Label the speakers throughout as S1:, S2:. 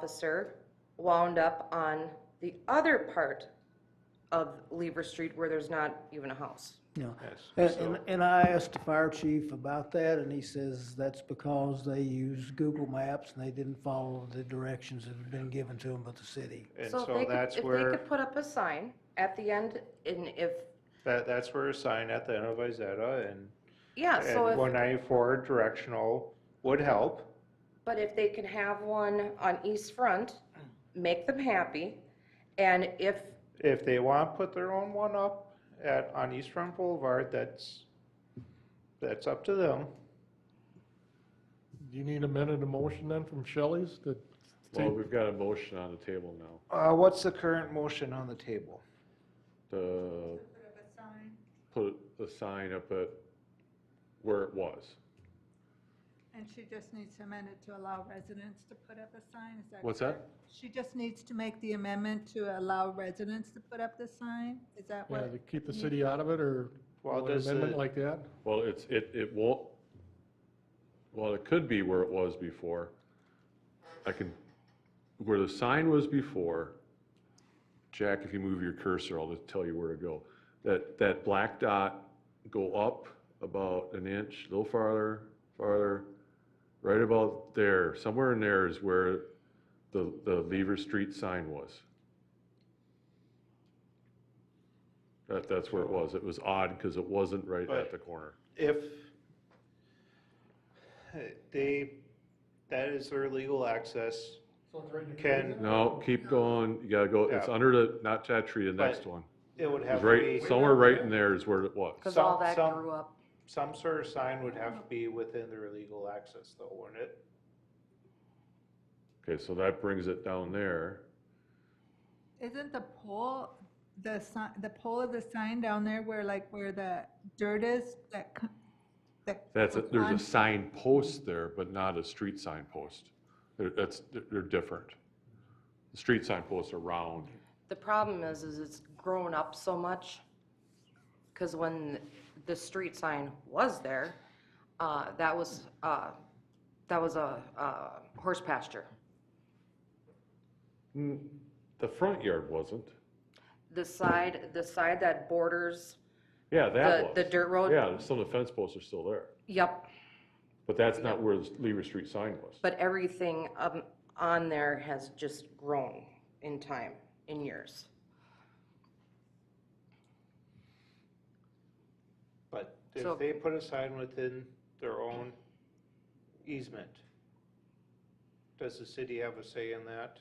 S1: officer wound up on the other part of Lever Street where there's not even a house.
S2: Yeah. And, and- and I asked the fire chief about that, and he says that's because they used Google Maps and they didn't follow the directions that had been given to them by the city.
S3: And
S1: if they
S3: so
S1: could-
S3: that's
S1: If they
S3: where,
S1: could put up a sign at the end and if,
S3: that, that's where a sign at the end of Izetta and,
S1: yeah, so
S3: and one
S1: if,
S3: ninety-four directional would help.
S1: but if they can have one on East Front, make them happy. And if,
S3: If they want to put their own one up at, on East Front Boulevard, that's, that's up to them.
S4: Do you need a minute of motion then from Shelley's to
S5: Well,
S4: take,
S5: we've got a motion on the table now
S3: Uh, what's the current motion on the table?
S5: to put a sign up at where it was.
S6: And she just needs to amend it to allow residents to put up a sign, is that?
S5: What's that?
S6: correct? She just needs to make the amendment to allow residents to put up the sign, is that
S4: yeah,
S6: what?
S4: uh, to keep the city out of it or
S3: Well,
S4: an
S3: does
S4: amendment
S3: the-
S4: like that?
S5: Well, it's, it, it won't, well, it could be where it was before. I can, where the sign was before, Jack, if you move your cursor, I'll just tell you where to go. That, that black dot, go up about an inch, a little farther, farther, right about there, somewhere in there is where the, the Lever Street sign was. That, that's where it was. It was odd because it wasn't right
S3: But-
S5: at the corner.
S3: If they, that is their legal access, can,
S5: No, keep going, you gotta go, it's
S3: Yeah.
S5: under the, not Chattree, the next
S3: But
S5: one.
S3: it would have
S5: It's
S3: to be,
S5: right, somewhere right in there is where it was.
S1: because all
S3: Some-
S1: that
S3: some-
S1: grew up.
S3: some sort of sign would have to be within their legal access though, wouldn't it?
S5: Okay, so that brings it down there.
S6: Isn't the pole, the sign, the pole of the sign down there where like, where the dirt is, that, co- that?
S5: That's, a- there's
S6: on-
S5: a sign post there, but not a street sign post. They're, that's, they're- they're different. The street sign posts are round.
S1: The problem is, is it's grown up so much, because when the street sign was there, uh, that was, uh, that was a, uh, horse pasture.
S5: Hmm. The front yard wasn't.
S1: The side, the side that borders,
S5: Yeah, that
S1: The-
S5: was.
S1: the dirt road?
S5: Yeah, some of the fence posts are still there,
S1: yep,
S5: but that's not where the Lever Street sign was.
S1: but everything, um, on there has just grown in time, in years.
S3: But
S1: So-
S3: if they put a sign within their own easement, does the city have a say in that?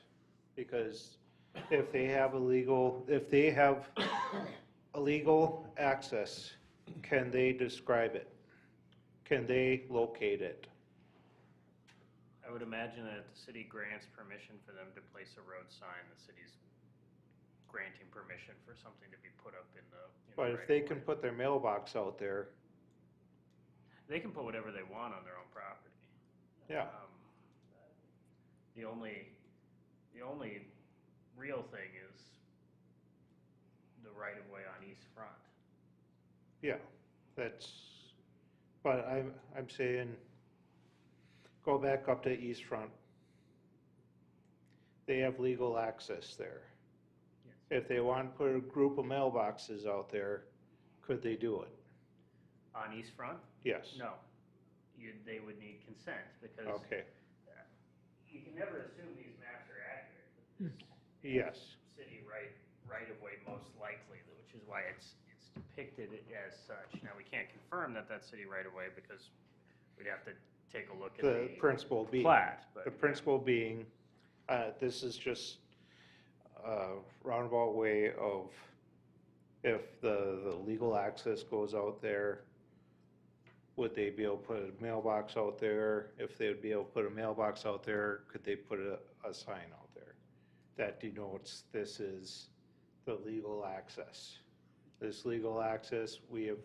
S3: Because if they have a legal, if they have a legal access, can they describe it? Can they locate it?
S7: I would imagine that if the city grants permission for them to place a road sign, the city's granting permission for something to be put up in the. in the
S3: But if
S7: right
S3: they
S7: of
S3: can
S7: way.
S3: put their mailbox out there,
S7: They can put whatever they want on their own property.
S3: yeah,
S7: Um, The only, the only real thing is the right of way on East Front.
S3: yeah, that's, but I'm, I'm saying, go back up to East Front. They have legal access there.
S7: Yes.
S3: If they want to put a group of mailboxes out there, could they do it?
S7: On East Front?
S3: Yes.
S7: No. You, they would need consent because
S3: Okay,
S7: you can never assume these maps are accurate.
S3: yes,
S7: city right, right of way most likely, which is why it's, it's depicted as such. Now, we can't confirm that that's city right of way because we'd have to take a look at
S3: the
S7: the
S3: principle being.
S7: plat,
S3: The
S7: but
S3: principle being, uh, this is just a roundabout way of, if the, the legal access goes out there, would they be able to put a mailbox out there? If they would be able to put a mailbox out there, could they put a, a sign out there? That denotes this is the legal access. This legal access, we have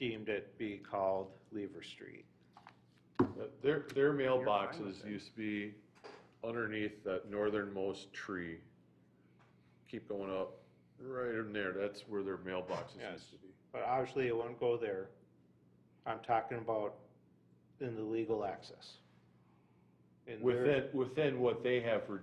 S3: deemed it be called Lever Street.
S5: Uh, Their, their
S7: fine with
S5: mailboxes
S7: it.
S5: used to be underneath that northernmost tree. Keep going up, right in there, that's where their mailboxes
S3: Yes.
S5: used to be.
S3: But obviously, it won't go there. I'm talking about in the legal access.
S8: in their-
S5: within, within what they have for